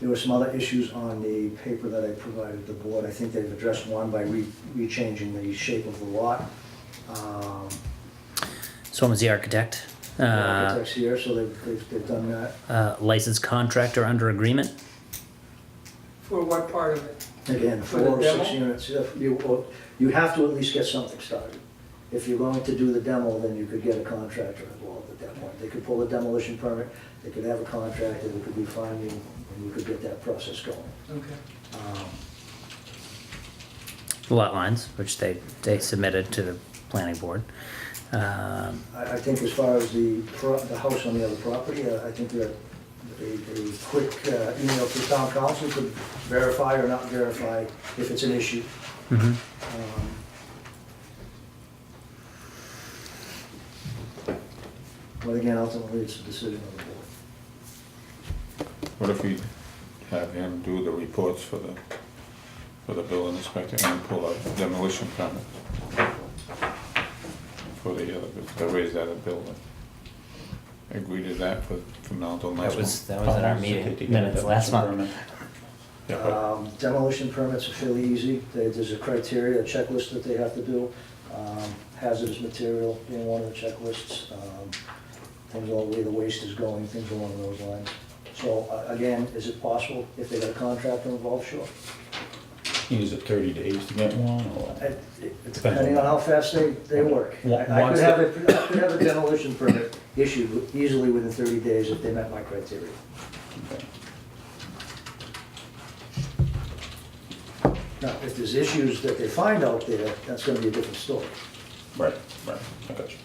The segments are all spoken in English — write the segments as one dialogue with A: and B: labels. A: There were some other issues on the paper that I provided the board. I think they've addressed one by re, re-changing the shape of the lot. Um,
B: This one was the architect. Uh,
A: Architects here, so they've, they've, they've done that.
B: uh, licensed contractor under agreement.
C: For what part of it?
A: Again,
C: For
A: four
C: the
A: or six
C: demo?
A: units, if you, or- you have to at least get something started. If you're going to do the demo, then you could get a contractor involved at that point. They could pull a demolition permit, they could have a contractor, they could be finding, and you could get that process going.
C: Okay.
A: Um,
B: Lot lines, which they, they submitted to the planning board. Um,
A: I, I think as far as the, pro- the house on the other property, uh, I think that a, a quick uh, email to town council could verify or not verify if it's an issue.
B: mhm.
A: Um, But again, ultimately, it's a decision of the board.
D: What if we have him do the reports for the, for the building inspector and pull a demolition permit? For the other, the raise that of building. Agree to that for, from now till next
E: That was,
D: month?
E: that was at our meeting minutes last month.
D: Yeah, but
E: Uh,
A: Um, Demolition permits are fairly easy. There- There's a criteria, a checklist that they have to do. Um, Hazardous material being one of the checklists. um, Things all the way the waste is going, things along those lines. So a- again, is it possible if they got a contractor involved? Sure.
E: Use it thirty days to get one or?
A: It- it- Depending on how fast they, they work. I I could
E: Once
A: have,
E: the-
A: a I could have a demolition permit issued easily within 30 days if they met my criteria. Now, if there's issues that they find out there, that's gonna be a different story.
E: Right, right, I got you.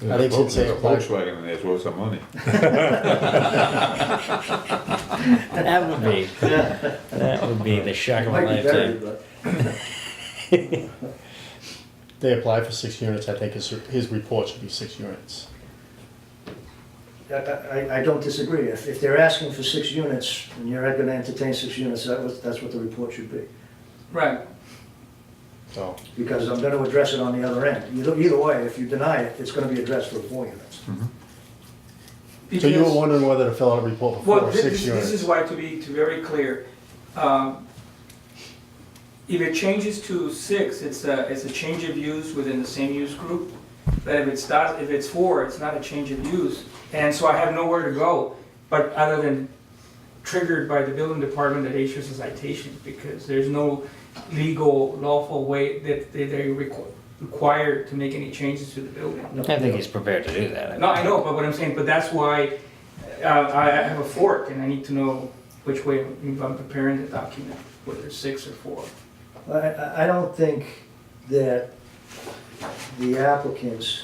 D: there's a
F: think
D: Vol-
F: since they
D: there's a
F: applied-
D: Volkswagen in there, it's worth some money.
B: That would be, that would be the shock of my
A: Might be
B: lifetime.
A: buried, but
F: They apply for six units, I think his, his report should be six units.
A: I, I- I don't disagree. If, if they're asking for six units and you're gonna entertain six units, that was, that's what the report should be.
C: Right,
F: So,
A: Because I'm gonna address it on the other end. Either, either way, if you deny it, it's gonna be addressed for four units.
F: so you were
C: because,
F: wondering whether to fill out a report for four
C: well,
F: or
C: thi-
F: six
C: this, this is
F: units?
C: why, to be, to very clear, um, if it changes to six, it's a, it's a change of use within the same use group. But if it's not, if it's four, it's not a change of use, and so I have nowhere to go, but other than triggered by the building department that issues a citation, because there's no legal lawful way that they, they requ- required to make any changes to the building.
B: I think he's prepared to do that.
C: No, I know, but what I'm saying, but that's why uh, I I have a fork and I need to know which way I'm I'm preparing the document, whether it's six or four.
A: I- I, I don't think that the applicants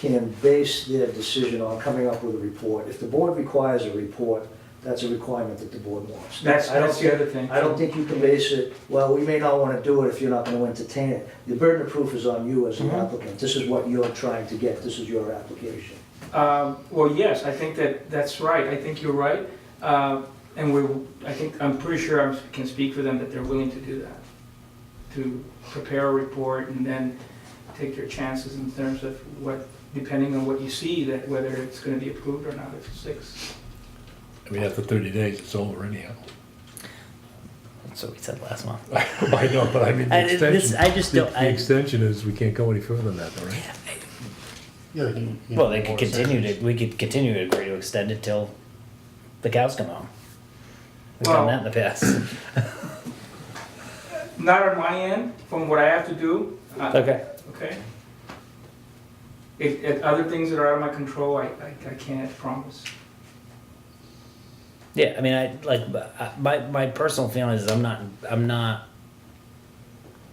A: can base their decision on coming up with a report. If the board requires a report, that's a requirement that the board wants.
C: That's,
A: I don't
C: that's
A: think-
C: the other thing.
A: I don't think you can base it, well, we may not want to do it if you're not going to entertain it. The burden of proof is on you as an
C: Mhm.
A: applicant. This is what you're trying to get, this is your application.
C: Um, Well, yes, I think that, that's right, I think you're right. Uh, And we're, I think, I'm pretty sure I can speak for them that they're willing to do that, to prepare a report and then take their chances in terms of what, depending on what you see, that whether it's going to be approved or not, if it's six.
G: I mean, after thirty days, it's over anyhow.
B: That's what we said last month.
G: I know, but I mean,
B: I-
G: the
B: this-
G: extension.
B: I just
G: the-
B: don't- I-
G: The extension is, we can't go any further than that, though, right?
F: Yeah, you- you
B: Well,
F: need
B: they
F: more
B: could continue
F: sections.
B: to, we could continue to agree to extend it till the cows come home. We've done that in the past.
C: Not on my end, from what I have to do. uh,
B: Okay.
C: Okay? If, if other things that are out of my control, I, I, I can't promise.
B: Yeah, I mean, I like I- my my personal feeling is I'm not I'm not.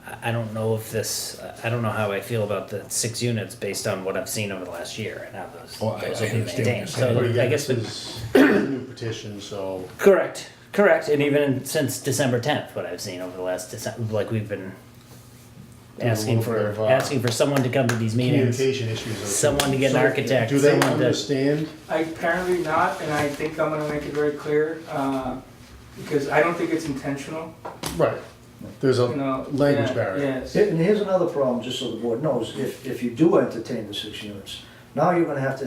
B: I I don't know if this. I don't know how I feel about the six units based on what I've seen over the last year and how those
G: Well, I-
B: those
G: I
B: are being
G: understand what you're
B: maintained.
G: saying.
B: So
F: But
B: I
F: again,
B: guess
F: this
B: the,
F: is a new petition, so
B: correct, correct, and even since December tenth, what I've seen over the last December, like we've been
F: Doing a
B: asking
F: little
B: for
F: bit of, uh,
B: asking for someone to come to these meetings.
F: communication issues are.
B: Someone to get an
F: So,
B: architect,
F: Do they
B: someone to-
F: understand?
C: I apparently not, and I think I'm gonna make it very clear, uh, because I don't think it's intentional,
F: Right, there's
C: you
F: a,
C: know.
F: Language
C: yeah,
F: barrier.
C: Yes.
A: And here's another problem, just so the board knows, if, if you do entertain the six units, now you're gonna have to